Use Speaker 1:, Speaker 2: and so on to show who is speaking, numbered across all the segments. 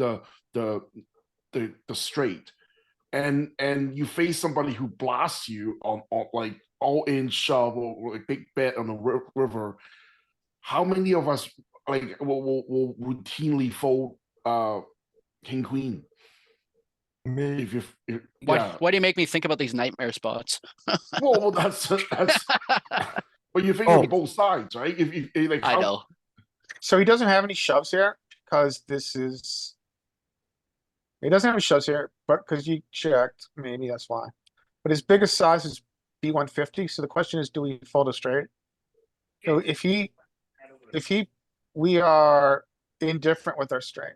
Speaker 1: the the the the straight, and and you face somebody who blasts you on, on like all in shove or, or a big bet on the ri- river. How many of us like will, will, will routinely fold uh king queen
Speaker 2: Me,
Speaker 1: if you if,
Speaker 3: Why,
Speaker 1: yeah.
Speaker 3: why do you make me think about these nightmare spots?
Speaker 1: well, well that's that's but you think
Speaker 2: Oh.
Speaker 1: on both sides right if, if, if, like
Speaker 3: I
Speaker 4: Oh.
Speaker 1: how-
Speaker 3: know.
Speaker 4: So he doesn't have any shoves here, because this is. He doesn't have any shoves here, but because you checked, maybe that's why. But his biggest size is B one fifty, so the question is, do we fold a straight? So if he, if he, we are indifferent with our straight.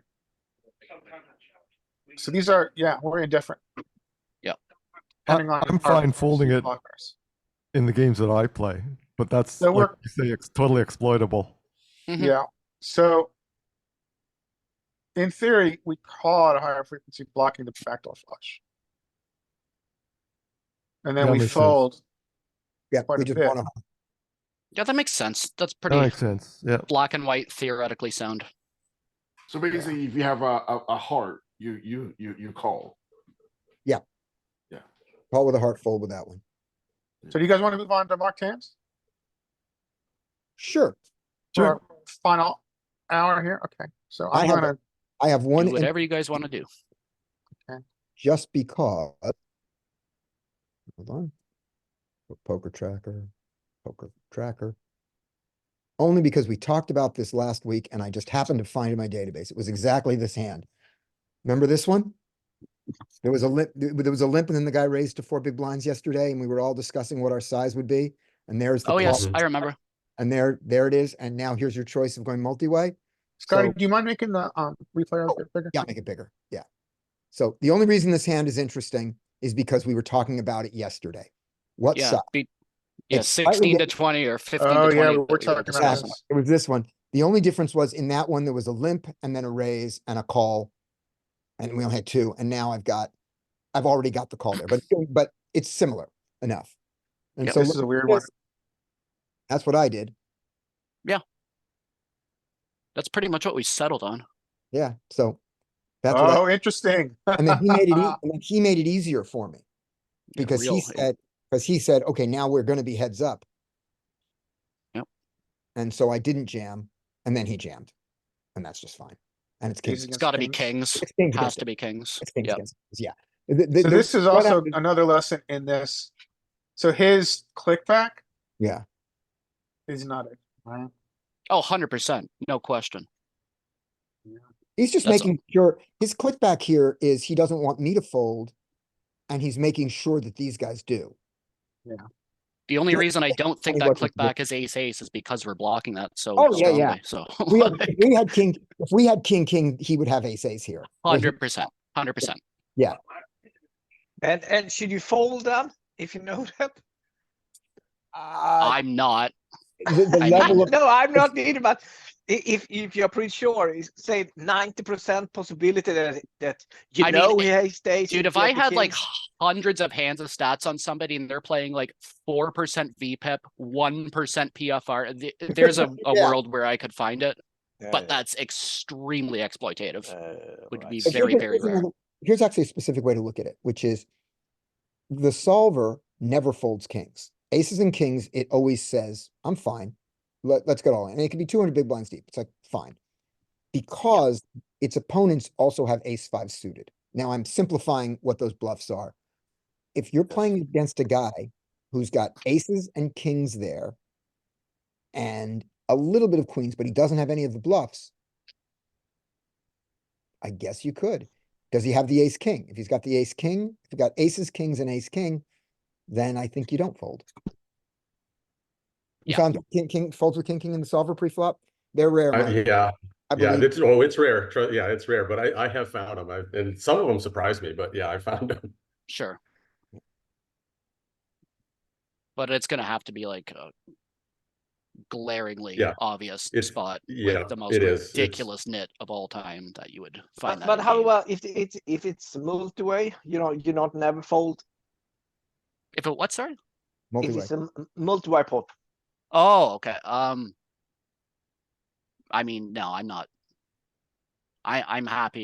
Speaker 4: So these are, yeah, we're indifferent.
Speaker 3: Yep.
Speaker 4: Depending on
Speaker 2: I'm
Speaker 4: our
Speaker 2: fine folding it.
Speaker 4: blockers.
Speaker 2: in the games that I play, but that's
Speaker 4: That
Speaker 2: like
Speaker 4: work-
Speaker 2: you say, it's totally exploitable.
Speaker 3: Mhm.
Speaker 4: Yeah, so. In theory, we call it a higher frequency blocking the backdoor flush. And then
Speaker 2: That
Speaker 4: we
Speaker 2: makes sense.
Speaker 4: fold,
Speaker 5: Yeah,
Speaker 4: quite
Speaker 5: we
Speaker 4: a
Speaker 5: just
Speaker 4: bit.
Speaker 5: wanna,
Speaker 3: Yeah, that makes sense. That's
Speaker 2: That
Speaker 3: pretty
Speaker 2: makes sense. Yeah.
Speaker 3: black and white theoretically sound.
Speaker 1: so basically if you have a, a, a heart you you you you call
Speaker 5: call with a heart fold with that one.
Speaker 4: so do you guys wanna move on to mock tens?
Speaker 5: Sure,
Speaker 4: For
Speaker 2: Sure.
Speaker 4: our Final hour here, okay, so
Speaker 5: I
Speaker 4: I'm
Speaker 5: have a-
Speaker 4: gonna,
Speaker 5: I have one
Speaker 3: Do
Speaker 5: in-
Speaker 3: whatever you guys want to do.
Speaker 5: just because. Hold on. Poker tracker, poker tracker. Only because we talked about this last week and I just happened to find it in my database. It was exactly this hand. Remember this one? There was a limp, there there was a limp and then the guy raised to four big blinds yesterday and we were all discussing what our size would be. And there's the
Speaker 3: Oh, yes,
Speaker 5: call,
Speaker 3: I remember.
Speaker 5: and there, there it is. And now here's your choice of going multi-way.
Speaker 4: Scotty,
Speaker 5: so-
Speaker 4: do you mind making the, um, replay a
Speaker 5: Oh,
Speaker 4: bit bigger?
Speaker 5: Yeah, make it bigger. Yeah. So the only reason this hand is interesting is because we were talking about it yesterday. What
Speaker 3: Yeah.
Speaker 5: size?
Speaker 3: be- Yeah,
Speaker 5: It's slightly
Speaker 3: sixteen to
Speaker 5: different.
Speaker 3: twenty or fifteen
Speaker 4: Oh,
Speaker 3: to twenty.
Speaker 4: yeah, we we're
Speaker 3: that we were
Speaker 4: talking about
Speaker 3: discussing.
Speaker 4: this.
Speaker 5: It was this one. The only difference was in that one, there was a limp and then a raise and a call. And we only had two. And now I've got, I've already got the call there, but, but it's similar enough. And
Speaker 3: Yep.
Speaker 5: so
Speaker 4: This is
Speaker 5: look
Speaker 4: a
Speaker 5: at
Speaker 4: weird one,
Speaker 5: this. that's what I did.
Speaker 3: That's pretty much what we settled on.
Speaker 5: Yeah. So that's what I
Speaker 4: oh, interesting.
Speaker 5: And then he made it, ea- and then he made it easier for me.
Speaker 3: Yeah,
Speaker 5: Because
Speaker 3: real-
Speaker 5: he
Speaker 3: it-
Speaker 5: said, because he said, okay, now we're gonna be heads up.
Speaker 3: Yep.
Speaker 5: And so I didn't jam, and then he jammed, and that's just fine. And it's
Speaker 4: Kings
Speaker 5: kings.
Speaker 3: It's
Speaker 4: against
Speaker 3: got to be
Speaker 4: kings.
Speaker 3: kings.
Speaker 5: It's kings
Speaker 3: Has
Speaker 5: against
Speaker 3: to
Speaker 5: it.
Speaker 3: be kings.
Speaker 5: It's kings
Speaker 3: Yeah.
Speaker 5: against it. Yeah. The- the-
Speaker 4: So
Speaker 5: the-
Speaker 4: this is
Speaker 5: what
Speaker 4: also
Speaker 5: happened-
Speaker 4: another lesson in this. So his click back
Speaker 5: Yeah,
Speaker 4: is not it, right?
Speaker 3: Oh, 100%. No question.
Speaker 5: he's just
Speaker 3: That's-
Speaker 5: making sure, his click back here is he doesn't want me to fold. And he's making sure that these guys do.
Speaker 3: The only
Speaker 5: Yeah,
Speaker 3: reason I don't think
Speaker 5: Tell you
Speaker 3: that
Speaker 5: what,
Speaker 3: clickback is ace ace is because we're blocking that so
Speaker 5: Oh, yeah,
Speaker 3: strongly.
Speaker 5: yeah.
Speaker 3: So
Speaker 5: If We had, if we had king, if we had king, king, he would have ace ace here. where he-
Speaker 3: 100%. 100%.
Speaker 6: And and should you fold them if you know that?
Speaker 5: Uh,
Speaker 3: I'm not.
Speaker 5: the- the
Speaker 3: I
Speaker 5: level of-
Speaker 6: No, I'm not needed, but i- if if you're pretty sure, it's say ninety percent possibility that that you
Speaker 3: I mean,
Speaker 6: know he has days.
Speaker 3: Dude, if I had like hundreds of hands of stats on somebody and they're playing like 4% VPIP, 1% PFR, th- there's a, a
Speaker 5: Yeah.
Speaker 3: world where I could find it, but that's extremely exploitative. would be
Speaker 5: But here's
Speaker 3: very,
Speaker 5: a-
Speaker 3: very
Speaker 5: here's
Speaker 3: rare.
Speaker 5: another- Here's actually a specific way to look at it, which is the solver never folds kings. Aces and kings, it always says, I'm fine. Let, let's get all in. And it could be two hundred big blinds deep. It's like, fine. Because its opponents also have ace five suited. Now I'm simplifying what those bluffs are. If you're playing against a guy who's got aces and kings there and a little bit of queens, but he doesn't have any of the bluffs, I guess you could. Does he have the ace king? If he's got the ace king, if you got aces, kings, and ace king, then I think you don't fold. You
Speaker 3: Yeah.
Speaker 5: found king, king folds with king, king in the solver pre-flop? They're rare.
Speaker 7: I-
Speaker 5: Mike.
Speaker 7: Uh, yeah,
Speaker 5: I
Speaker 7: yeah,
Speaker 5: believe,
Speaker 7: it's, oh, it's rare. Tru- Yeah, it's rare, but I, I have found them. I, and some of them surprised me, but yeah, I found them.
Speaker 3: Sure. But it's gonna have to be like a glaringly
Speaker 7: Yeah,
Speaker 3: obvious
Speaker 7: it's-
Speaker 3: spot. with
Speaker 7: yeah,
Speaker 3: The most
Speaker 7: it is. It's-
Speaker 3: ridiculous nit of all time that you would find
Speaker 6: But,
Speaker 3: that.
Speaker 6: but
Speaker 3: in a
Speaker 6: how
Speaker 3: game.
Speaker 6: about if it's if it's multi-way? You know, you not never fold.
Speaker 3: If it what, sorry?
Speaker 6: If
Speaker 5: multi-way.
Speaker 6: it's a m- multi-way pot,
Speaker 3: Oh, okay, um. I mean, no, I'm not. I, I'm happy